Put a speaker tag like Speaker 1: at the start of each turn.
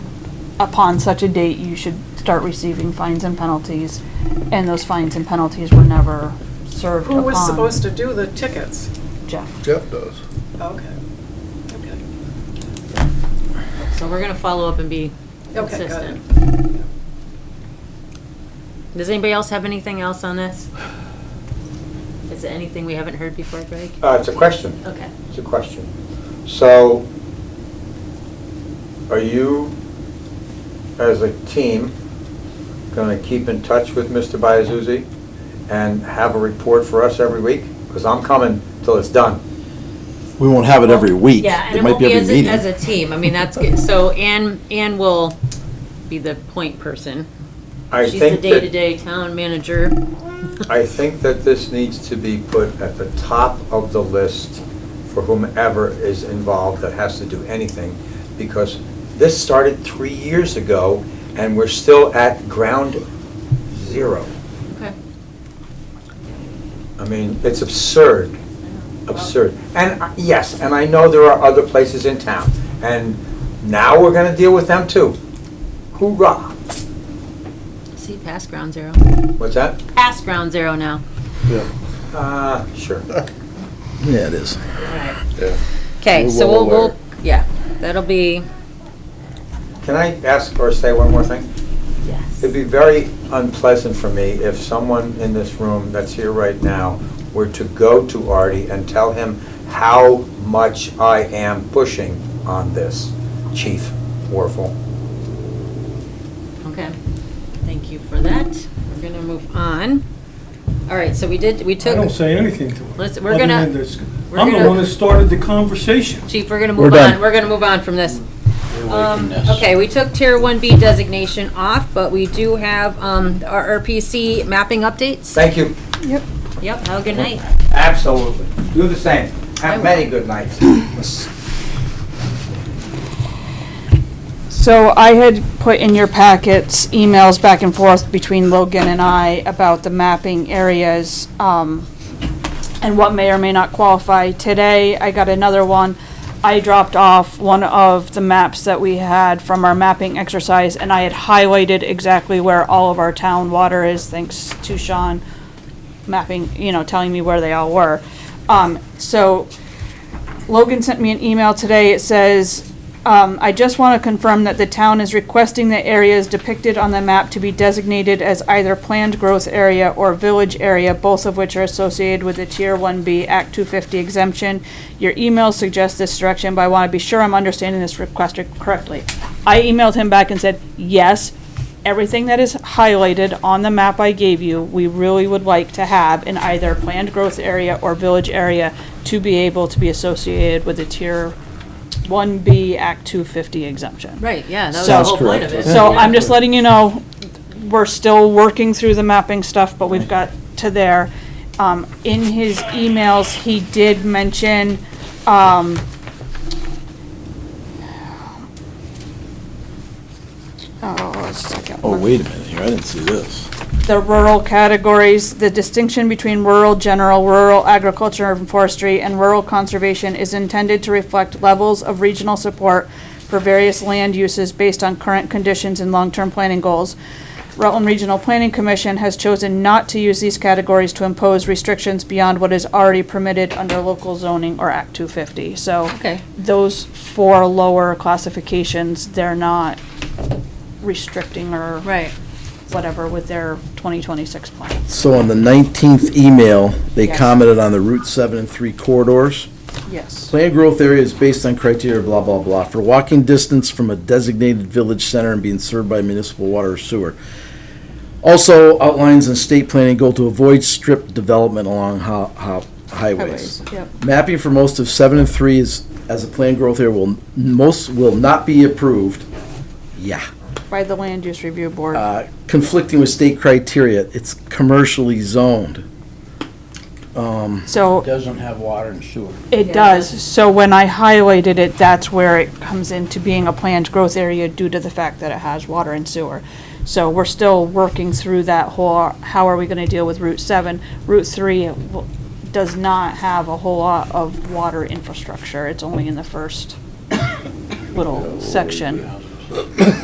Speaker 1: upon such a date, you should start receiving fines and penalties, and those fines and penalties were never served upon.
Speaker 2: Who was supposed to do the tickets?
Speaker 1: Jeff.
Speaker 3: Jeff does.
Speaker 2: Okay, okay.
Speaker 4: So we're gonna follow up and be
Speaker 2: Okay, got it.
Speaker 4: consistent. Does anybody else have anything else on this? Is there anything we haven't heard before, Greg?
Speaker 5: Uh, it's a question.
Speaker 4: Okay.
Speaker 5: It's a question. So, are you, as a team, going to keep in touch with Mr. Biasuzzi and have a report for us every week? Because I'm coming till it's done.
Speaker 6: We won't have it every week.
Speaker 4: Yeah, and
Speaker 6: It
Speaker 4: it
Speaker 6: might
Speaker 4: won't
Speaker 6: be
Speaker 4: be
Speaker 6: every
Speaker 4: as a,
Speaker 6: meeting.
Speaker 4: as a team. I mean, that's good. So Ann, Ann will be the point person.
Speaker 5: I
Speaker 4: She's the
Speaker 5: think that-
Speaker 4: day-to-day town manager.
Speaker 5: I think that this needs to be put at the top of the list for whomever is involved that has to do anything, because this started three years ago, and we're still at ground zero.
Speaker 4: Okay.
Speaker 5: I mean, it's absurd, absurd. And, uh, yes, and I know there are other places in town, and now we're gonna deal with them too. Hoorah!
Speaker 4: See, past ground zero.
Speaker 5: What's that?
Speaker 4: Past ground zero now.
Speaker 5: Uh, sure.
Speaker 6: Yeah, it is.
Speaker 3: Yeah.
Speaker 4: Okay,
Speaker 3: We're
Speaker 4: so
Speaker 3: well
Speaker 4: we'll, we'll,
Speaker 3: aware.
Speaker 4: yeah, that'll be,
Speaker 5: Can I ask or say one more thing?
Speaker 4: yes.
Speaker 5: It'd be very unpleasant for me if someone in this room that's here right now were to go to Artie and tell him how much I am pushing on this, Chief Warfel.
Speaker 4: Okay, thank you for that. We're gonna move on. All right, so we did, we
Speaker 7: I don't
Speaker 4: took,
Speaker 7: say anything to her.
Speaker 4: Listen, we're
Speaker 7: other
Speaker 4: gonna-
Speaker 7: than this-
Speaker 4: we're
Speaker 7: I'm
Speaker 4: gonna-
Speaker 7: the one that started the conversation.
Speaker 4: Chief, we're gonna
Speaker 6: We're
Speaker 4: move
Speaker 6: done.
Speaker 4: on, we're gonna move on from this. Um, Okay, we took Tier 1B designation off, but we do have um, our RPC mapping updates.
Speaker 5: Thank you.
Speaker 4: Yep, have a good night.
Speaker 5: Absolutely. Do the same. Have many good nights.
Speaker 1: So I had put in your packets emails back and forth between Logan and I about the mapping areas, um, and what may or may not qualify. Today, I got another one. I dropped off one of the maps that we had from our mapping exercise, and I had highlighted exactly where all of our town water is, thanks to Sean mapping, you know, telling me where they all were. Um, so Logan sent me an email today. It says, um, I just want to confirm that the town is requesting the areas depicted on the map to be designated as either planned growth area or village area, both of which are associated with the Tier 1B Act 250 exemption. Your email suggests this direction, but I want to be sure I'm understanding this request correctly. I emailed him back and said, yes, everything that is highlighted on the map I gave you, we really would like to have in either planned growth area or village area to be able to be associated with a tier one B Act two fifty exemption.
Speaker 4: Right, yeah, that was the
Speaker 1: Sounds
Speaker 4: whole point of
Speaker 6: correct.
Speaker 4: it.
Speaker 1: So I'm just letting you know, we're still working through the mapping stuff, but we've got to there. Um, in his emails, he did mention, um, oh, a second.
Speaker 6: Oh,
Speaker 1: one.
Speaker 6: wait a minute here. I didn't see this.
Speaker 1: the rural categories, the distinction between rural general, rural agriculture and forestry, and rural conservation is intended to reflect levels of regional support for various land uses based on current conditions and long-term planning goals. Rutland Regional Planning Commission has chosen not to use these categories to impose restrictions beyond what is already permitted under local zoning or Act two fifty, so.
Speaker 4: Okay.
Speaker 1: Those four lower classifications, they're not restricting or
Speaker 4: Right.
Speaker 1: whatever with their 2026 plan.
Speaker 6: So on the 19th email, they
Speaker 1: Yes.
Speaker 6: commented on the Route 7 and 3 corridors.
Speaker 1: Yes.
Speaker 6: Planned growth area is based on criteria blah, blah, blah, for walking distance from a designated village center and being served by municipal water or sewer. Also outlines in state planning goal to avoid strip development along ho- ho- highways.
Speaker 1: Yep.
Speaker 6: Mapping for most of seven and three is, as a planned growth area will, most will not be approved. Yeah.
Speaker 1: By the Land Use Review Board.
Speaker 6: Uh, Conflicting with state criteria, it's commercially zoned. Um,
Speaker 1: So
Speaker 8: doesn't have water and sewer.
Speaker 1: it does, so when I highlighted it, that's where it comes into being a planned growth area due to the fact that it has water and sewer. So we're still working through that whole, how are we going to deal with Route 7? Route 3 w- does not have a whole lot of water
Speaker 6: Uh,
Speaker 1: infrastructure. It's only in the first little section.